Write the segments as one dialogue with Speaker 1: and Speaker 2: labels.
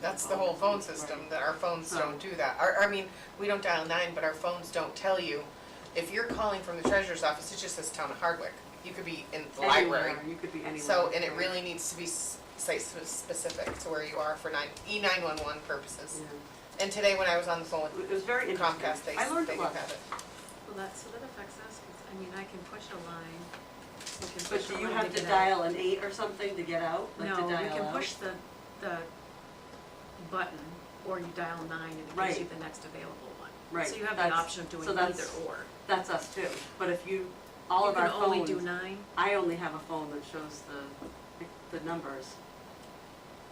Speaker 1: That's the whole phone system, that our phones
Speaker 2: Oh.
Speaker 1: don't do that. Our, I mean, we don't dial nine, but our phones don't tell you. If you're calling from the treasurer's office, it just says town of Hardwick. You could be in the
Speaker 2: Anywhere,
Speaker 1: library.
Speaker 2: You could be anywhere.
Speaker 1: So, and it really needs to be s- site-specific to where you are for nine, E911 purposes.
Speaker 2: Yeah.
Speaker 1: And today, when I was on the phone with
Speaker 2: It was very interesting.
Speaker 1: Comcast, they,
Speaker 2: I learned
Speaker 1: they
Speaker 2: a
Speaker 1: do
Speaker 2: lot.
Speaker 1: have it.
Speaker 3: Well, that, so that affects us, because, I mean, I can push a line. we can
Speaker 2: But
Speaker 3: push
Speaker 2: do
Speaker 3: a
Speaker 2: you
Speaker 3: line
Speaker 2: have to
Speaker 3: get
Speaker 2: dial an eight or something to get out?
Speaker 3: out.
Speaker 2: Like
Speaker 3: No,
Speaker 2: to
Speaker 3: you
Speaker 2: dial
Speaker 3: can
Speaker 2: out?
Speaker 3: push the, the button, or you dial nine and it gives you
Speaker 2: Right.
Speaker 3: the next available one.
Speaker 2: Right,
Speaker 3: So you have the
Speaker 2: that's-
Speaker 3: option of doing
Speaker 2: so that's-
Speaker 3: either or.
Speaker 2: That's us too. But if you, all of our
Speaker 3: You can only do
Speaker 2: phones,
Speaker 3: nine,
Speaker 2: I only have a phone that shows the, the numbers.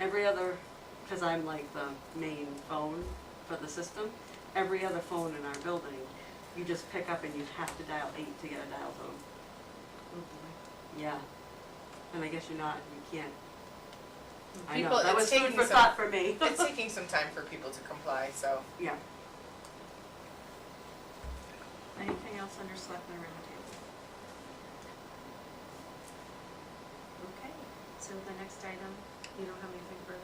Speaker 2: Every other, because I'm like the main phone for the system, every other phone in our building, you just pick up and you have to dial eight to get a dial tone.
Speaker 3: Oh,
Speaker 2: Yeah. And I guess you're not, you can't. I know,
Speaker 1: People-
Speaker 2: that
Speaker 1: it's
Speaker 2: was food
Speaker 1: taking
Speaker 2: for
Speaker 1: some-
Speaker 2: thought for me.
Speaker 1: It's taking some time for people to comply, so.
Speaker 2: Yeah.
Speaker 3: anything else under selectmen roundtable? Okay, so the next item, you don't have anything further,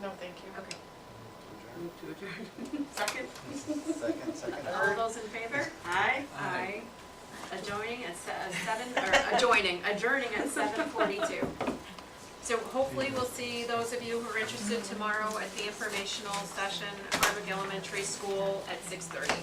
Speaker 3: Nicole?
Speaker 1: No, thank you.
Speaker 3: Okay,
Speaker 2: Move to adjourn. Second?
Speaker 4: Second, second.
Speaker 3: all those in favor?
Speaker 2: Aye.
Speaker 3: Aye. Adjoining at se- uh, seven, or adjoining, adjourning at seven forty-two. So hopefully we'll see those of you who are interested tomorrow at the informational session, Hardwick Elementary School at six thirty.